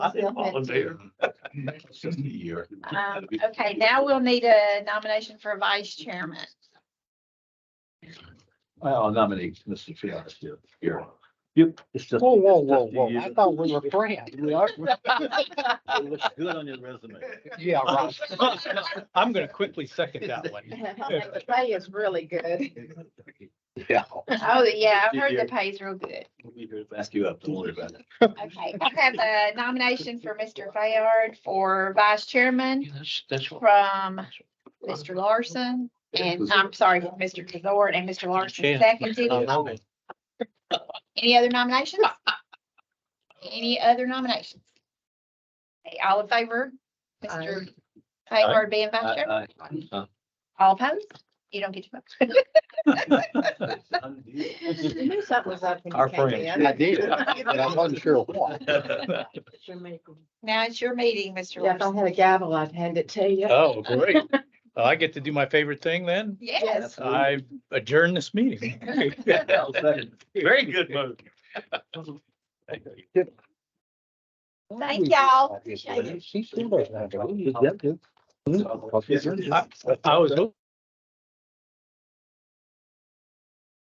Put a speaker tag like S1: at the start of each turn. S1: I volunteer.
S2: Just a year.
S3: Um, okay, now we'll need a nomination for vice chairman.
S2: I'll nominate Mr. Fiasco here.
S4: Yep, it's just.
S5: Whoa, whoa,
S4: it's
S5: whoa,
S4: just a
S5: whoa. I
S4: user-
S5: thought we were friends.
S4: We are. It looks good on your resume.
S5: Yeah, right.
S6: I'm gonna quickly second that one.
S3: The pay is really good.
S5: Yeah.
S3: Oh, yeah, I've heard the pay is real good.
S4: We'll be here to Ask you up, don't worry about it.
S3: Okay, I have a nomination for Mr. Fayard for vice chairman
S2: That's, that's what.
S3: from Mr. Larson. And I'm sorry, from Mr. Tazord and Mr. Larson seconded. it. Any other nominations? Any other nominations? Okay, all in favor? Mr. Fayard being vice chairman?
S4: I- I- uh,
S3: All opposed? You don't get to vote.
S4: it's undue.
S7: I knew something was up when
S4: Our
S7: you came
S4: friend.
S7: in.
S5: I did, but I wasn't sure what.
S7: Jamaica.
S3: Now it's your meeting, Mr.
S7: Yeah, if I
S3: Larson.
S7: had a gavel, I'd hand it to you.
S6: Oh, great. Well, I get to do my favorite thing then.
S3: Yes.
S6: I adjourn this meeting.
S4: I'll second.
S2: Very good move.
S3: Thank y'all.
S5: She still doesn't have. a-
S4: Yep, yep.
S6: I was hoping